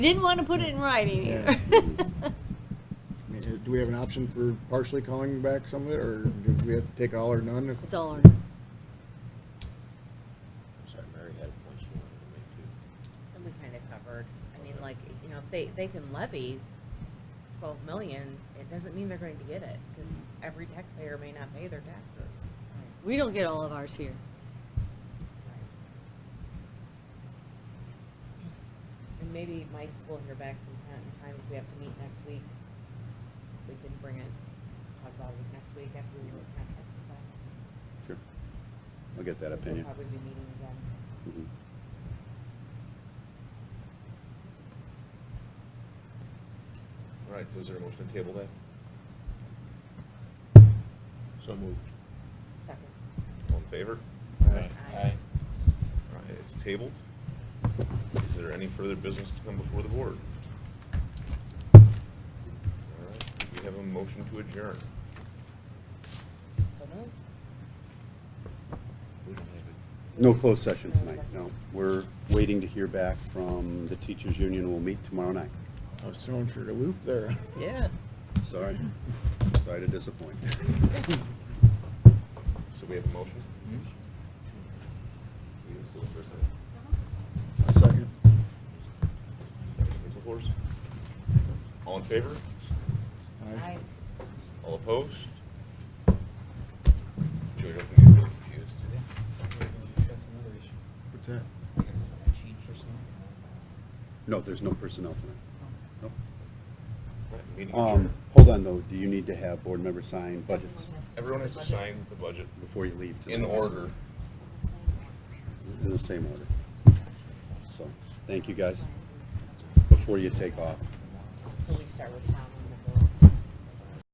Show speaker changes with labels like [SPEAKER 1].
[SPEAKER 1] Didn't want to put it in writing
[SPEAKER 2] Yeah.
[SPEAKER 1] either.
[SPEAKER 2] I mean, Do we have an option for partially calling back some of it, or do we have to take all or none? if-
[SPEAKER 1] It's all or
[SPEAKER 3] Sorry, Mary had a point she wanted to make too.
[SPEAKER 4] And we kind of covered, I mean, like, you know, if they, they can levy twelve million, it doesn't mean they're going to get it, because every taxpayer may not pay their taxes.
[SPEAKER 1] We don't get all of ours here.
[SPEAKER 4] And maybe Mike will hear back from Pat in time, if we have to meet next week, we can bring it, talk about it next week after we were contest decided.
[SPEAKER 5] Sure. I'll get that
[SPEAKER 4] We'll
[SPEAKER 5] opinion.
[SPEAKER 4] probably be meeting again.
[SPEAKER 5] Mhm.
[SPEAKER 3] All right, so is there a motion to table that? So moved.
[SPEAKER 4] Second.
[SPEAKER 3] All in favor?
[SPEAKER 4] Aye. Aye.
[SPEAKER 3] All right, it's tabled. Is there any further business to come before the board? All right, we have a motion to adjourn.
[SPEAKER 4] So moved.
[SPEAKER 3] We don't have it.
[SPEAKER 5] No closed session tonight, no. We're waiting to hear back from the teachers' union. We'll meet tomorrow night.
[SPEAKER 2] I was thrown for the loop there.
[SPEAKER 3] Yeah.
[SPEAKER 5] Sorry. Sorry to disappoint.
[SPEAKER 3] So we have a motion? We can still first uh, have
[SPEAKER 2] A second.
[SPEAKER 3] it. Is the horse? All in favor?
[SPEAKER 2] Aye.
[SPEAKER 3] All opposed? Joey, don't get really confused.
[SPEAKER 6] We're gonna discuss another issue.
[SPEAKER 2] What's that?
[SPEAKER 6] We're gonna change personnel.
[SPEAKER 5] No, there's no personnel tonight. Nope.
[SPEAKER 3] All right, Meeting adjourned.
[SPEAKER 5] Um, hold on though. Do you need to have board members sign budgets
[SPEAKER 3] Everyone has to sign the budget
[SPEAKER 5] before you leave? tonight?
[SPEAKER 3] in order.
[SPEAKER 5] In the same order. So, thank you guys. Before you take off.
[SPEAKER 4] So we start with town